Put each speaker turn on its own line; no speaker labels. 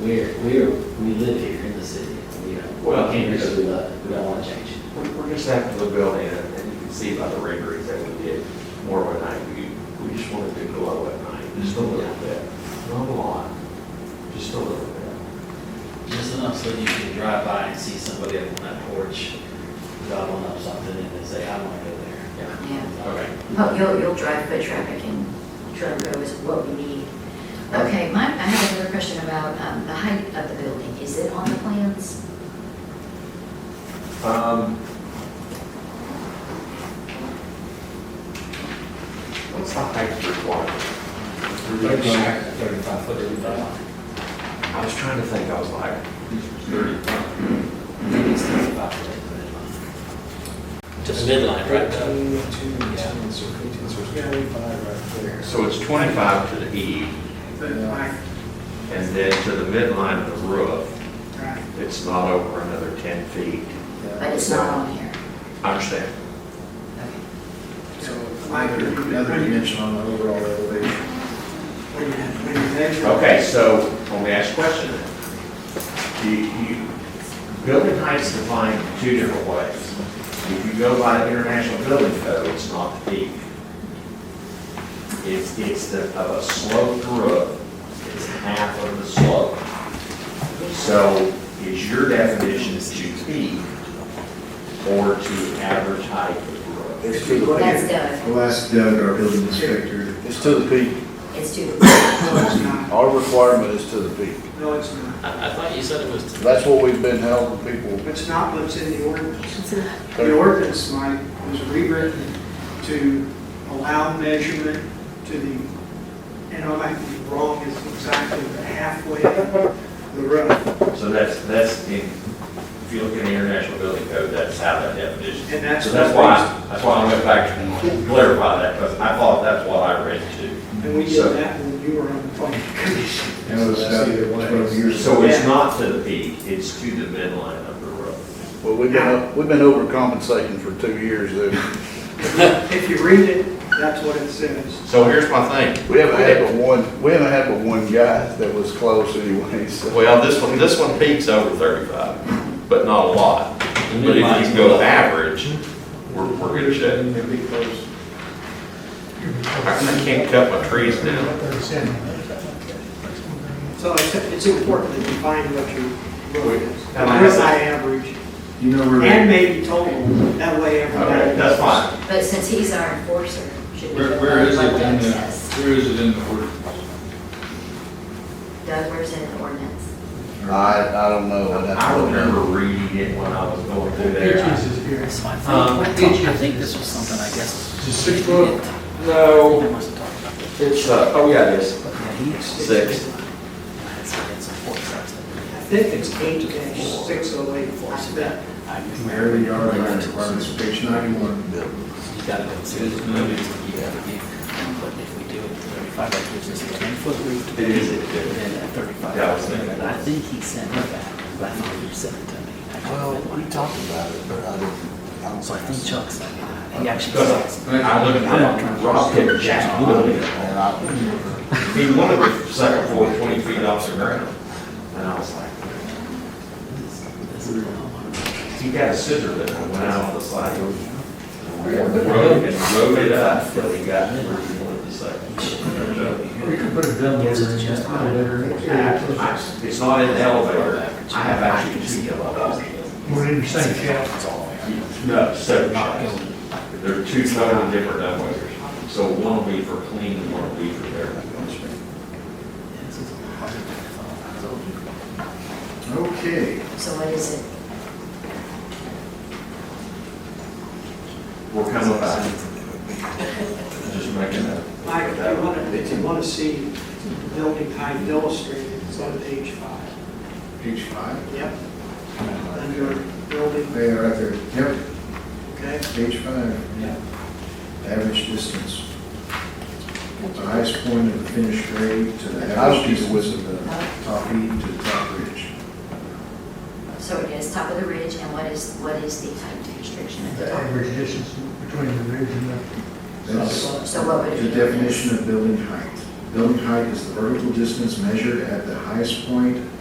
we're, we're, we live here in the city, you know, we
Well,
can't
because-
just, we love it, we don't wanna change it.
We're, we're just after the building, and and you can see by the renderings that we did, more of a night, we, we just wanted to glow at night, just a little bit, not a lot, just a little bit.
Just enough so you can drive by and see somebody up on that porch, gobbling up something and then say, I wanna go there.
Yeah.
Yeah.
Okay.
Well, you'll, you'll drive foot traffic and truck row is what we need. Okay, my, I have another question about um, the height of the building. Is it on the plans?
Um. What's the height requirement?
Thirty-five foot, thirty-five.
I was trying to think, I was like, thirty-five.
I think it's thirty-five foot.
Just
Midline, right?
um,
Eighteen, two, eighteen, so eighteen, so it's twenty-five right there.
So it's twenty-five to the eve,
Yeah.
and then to the midline of the roof, it's not over another ten feet.
But it's not on here.
I understand.
Okay.
So another, another dimension on the overall elevation.
When you, when you measure.
Okay, so let me ask a question then. You, you, building height's defined two different ways. If you go by the International Building Code, it's not the peak. It's, it's the, of a sloped roof, it's half of the slope. So is your definition to peak or to average height of the roof?
It's too
That's
late.
Doug.
We'll ask Doug, our building inspector.
It's to the peak.
It's too,
No, it's not.
Our requirement is to the peak.
No, it's not.
I, I thought you said it was
That's what we've been helping people.
It's not what's in the ordinance. The ordinance, Mike, was rewritten to allow measurement to the, and I might be wrong, it's exactly the halfway of the road.
So that's, that's, in- if you look in the International Building Code, that's how that definition.
And that's
So that's
what
why, that's why I went back to clarify that, because I thought that's what I read too.
And we did that when you were on the planning commission.
That was about twelve years ago.
So it's not to the peak, it's to the midline of the road.
Well, we've been, we've been overcompensating for two years there.
If you read it, that's what it says.
So here's my thing,
We haven't had but one, we haven't had but one guy that was close anyway, so.
well, this one, this one peaks over thirty-five, but not a lot. But if you go average, we're, we're good shape.
Maybe close.
I I can't cut my trees down.
So it's, it's important that you find what your road is.
And I have-
Road by average,
You know where, that-
and maybe total, that way
Okay,
everybody.
that's fine.
but since he's our enforcer, should we?
Where, where is it uh? in
let Doug
the,
test?
where is it in the order?
Doug, where's it in the ordinance?
I, I don't know. I'd have to
I
look.
remember reading it when I was going through there.
That's fine.
Um,
I think, I think this was something, I guess.
Is it six foot?
No,
I must have talked about this.
It's, uh, oh yeah, it is.
Yeah, he is.
Six.
It's, it's a four size.
I think it's eight dash six oh eight, that,
wherever you are, line requirements, page ninety-one.
You gotta go to, you gotta do, but if we do it thirty-five, that gives us a ten-foot roof.
It is, it
And
is.
then a thirty-five.
Yeah, I was thinking that.
I think he sent it back, but I thought you sent it to me. I couldn't
Well,
find
we
mine.
talked about it, but I didn't, I don't
So I think
think so.
Chuck sent it, back. he actually
Because
says.
I looked at that, Rob hit Jack Wood.
And I,
He wanted the second floor twenty feet off the ground. And I was like,
this is wrong.
he got a scissor that went out on the side. Rode and rode it up till he got to where he wanted the second. floor.
We could put a dumbbell
Yes, it's just
in there.
I- It's not in the elevator. I have actually two elevators.
We're in the same
No, seven shots. There are two totally different elevators. So one will be for clean and one will be for air.
This is a hard one. So-
Okay,
So what is it?
We're coming back. Just making that.
Mike, if you want to, if you want to see building height illustrated, it's on page five.
page five.
Yep, under building,
They are right there. Yep,
okay?
page five.
Yeah.
Average distance. The highest point of the finished grade to the
I was
average
just-
distance of the
Oh,
top heat to the top ridge.
So it is top of the ridge, and what is, what is the height restriction at the top?
distance between the ridge and the.
That's
So what would it be?
the definition of building height. Building height is the vertical distance measured at the highest point